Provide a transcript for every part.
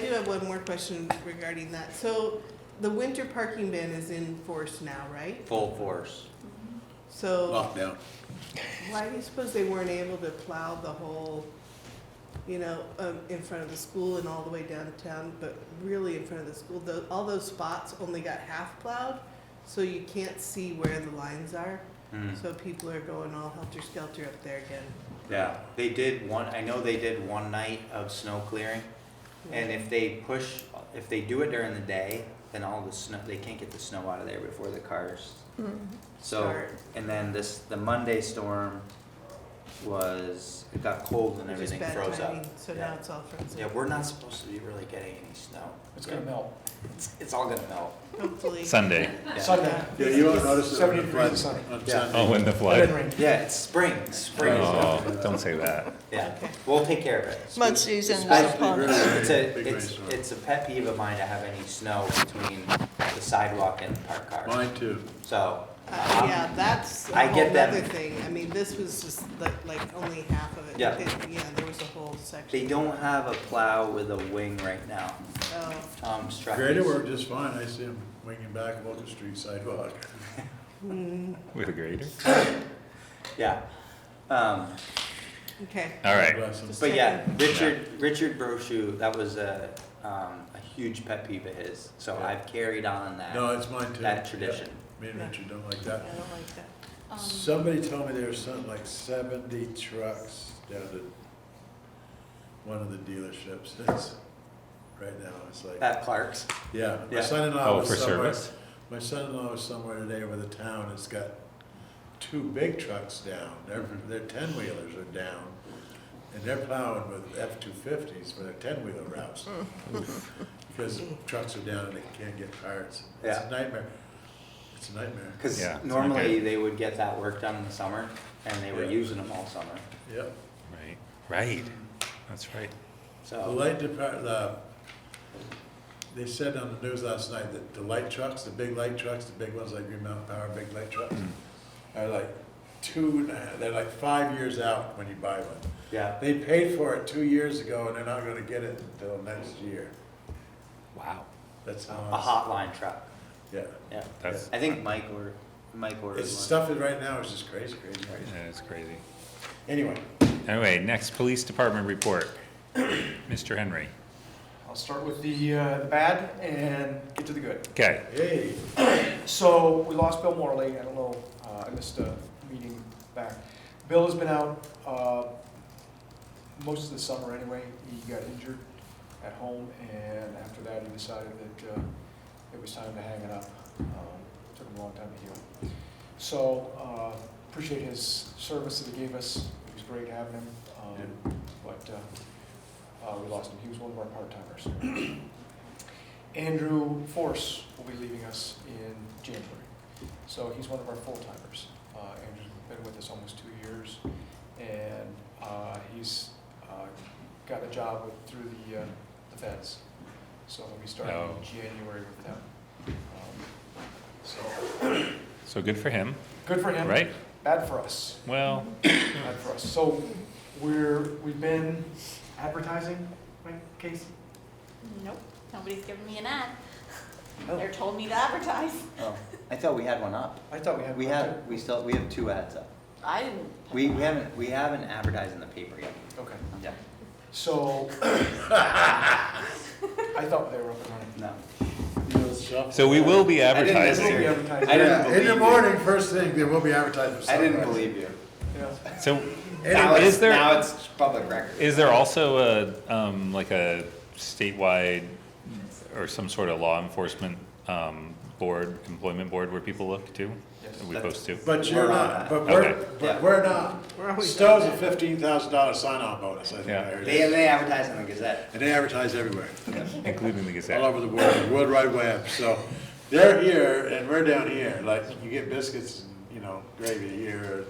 do have one more question regarding that. So the winter parking ban is in force now, right? full force. Oh. So lockdown. why do you suppose they weren't able to plow the whole, you know, um, in front of the school and all the way downtown, but really in front of the school? Tho- All those spots only got half plowed, so you can't see where the lines are. Hmm. So people are going all helter-skelter up there again. Yeah, they did one, I know they did one night of snow clearing. And if they push, if they do it during the day, then all the snow, they can't get the snow out of there before the cars. So, Mm-hmm. Start. and then this, the Monday storm was, it got cold and Which is everything bad froze up. timing, So Yeah. now it's all frozen. Yeah, we're not supposed to be really getting any snow. It's gonna melt. It's, it's all gonna melt. Hopefully. Sunday. Yeah. Sunday. Yeah, you won't notice it on Seventy the degrees flood and sunny. on Yeah. Sunday. Oh, in the It didn't flood. rain. Yeah, it's spring, spring. is up. Oh, don't say that. Yeah, Okay. we'll take care of it. Mud season I- is upon us. It's a, Big it's, rainstorm. it's a pet peeve of mine to have any snow between the sidewalk and the parked cars. Mine too. So, Uh, um, yeah, that's a I whole get them. other thing. I mean, this was just like, like only half of it. Yeah. It- Yeah, there was a whole they section. don't have a plow with a wing right now. Oh, Tom Strachey's- Grader worked just fine. I see him winging back Locust Street sidewalk. With a grader? Yeah. Um, okay. All right. Bless him. but yeah, Second. Richard, Richard Brochu, that was a, um, a huge pet peeve of his, so Yeah. I've carried on that. No, it's mine too. That tradition. Yeah. Me and Yeah. Richard don't like I that. don't like that. Somebody told me there was something like seventy trucks down to one of the dealerships. It's, right now, it's like, At Clark's. yeah. My yeah. son-in-law Oh, was for somewhere. service? My son-in-law was somewhere today with a town that's got two big trucks down. Their, Mhm. their ten-wheelers are down. And they're plowing with F-250s for their ten-wheeler routes. Mm. Because trucks are down and they can't get parts. It's Yeah. a nightmare. It's a nightmare. Because Yeah, it's not normally good. they would get that work done in the summer, and they were Yeah. using them all summer. Yep. Right. Right. That's right. The So light depart, the, they said on the news last night that the light trucks, the big light trucks, the big ones like Green Mountain Power, big light trucks, are like two, and a half- they're like five years out when you buy one. yeah, They paid for it two years ago and they're not gonna get it until next year. Wow. That's how. a it's- hotline truck. Yeah. Yeah, That's, I think Mike or Mike ordered It's one. stuff that right now is just crazy, crazy, crazy. that's crazy. Anyway, Anyway, next, police department report. Mr. Henry. I'll start with the, uh, the bad and get to the good. Okay. hey, So we lost Bill Morley. I don't know, uh, I missed a meeting back. Bill has been out, uh, most of the summer anyway. He got injured at home and after that he decided that, uh, it was time to hang it up. Um, Took him a long time to heal. So, uh, appreciate his service that he gave us. It was great having him. Um, But, uh, uh, we lost him. He was one of our part-timers. Andrew Force will be leaving us in January. So he's one of our full-timers. Uh, Andrew's been with us almost two years, and uh, he's uh, got a job with- through the uh, the feds. So he'll be starting Oh. in January with them. Um, So, So good for him, good for him. right? Bad for us. Well, Bad for us. So we're, we've been advertising, right, Casey? Nope, nobody's given me an ad. Oh. They're told me to advertise. Oh, I thought we had one up. I thought we had. We have, we still, we have two ads up. I didn't. We, we haven't, we haven't advertised in the paper yet. Okay. Yeah, So, I thought they were up and running. no. so we will be I didn't We'll advertising. be hear- advertising. I didn't yeah, in believe the you. morning, first thing, there will be advertisements. I didn't somewhere. believe you. Yeah. So Now is it's, there- now it's public record. is there also a, um, like a statewide or some sort of law enforcement, um, board, employment board where people look to? Yes. Are we supposed to? But you're We're on not, that. but Okay. we're, Yeah. but we're not. We're always Stowe's a fifteen thousand dollar sign-on bonus, I think. Yeah. I heard. They, and they advertise in the Gazette. And they advertise everywhere, Including the all Gazette. over the world, the World Wide Web, so they're here and we're down here, like, you get biscuits and, you know, gravy here.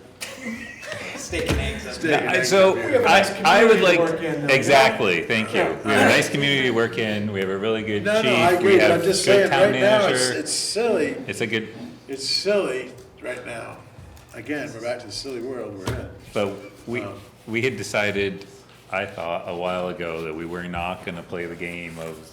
Steak and eggs. Steak and I- eggs So up here. have a nice I, I would community to work in, like, though. exactly, thank you. Yeah. We have a nice community to work in. We have a really good No, no, I chief. We agree, have I'm just saying, good town right now, it's, manager. it's silly, It's a good, it's silly right now. Again, we're back to the silly world we're in. But we, Um, we had decided, I thought, a while ago, that we were not gonna play the game of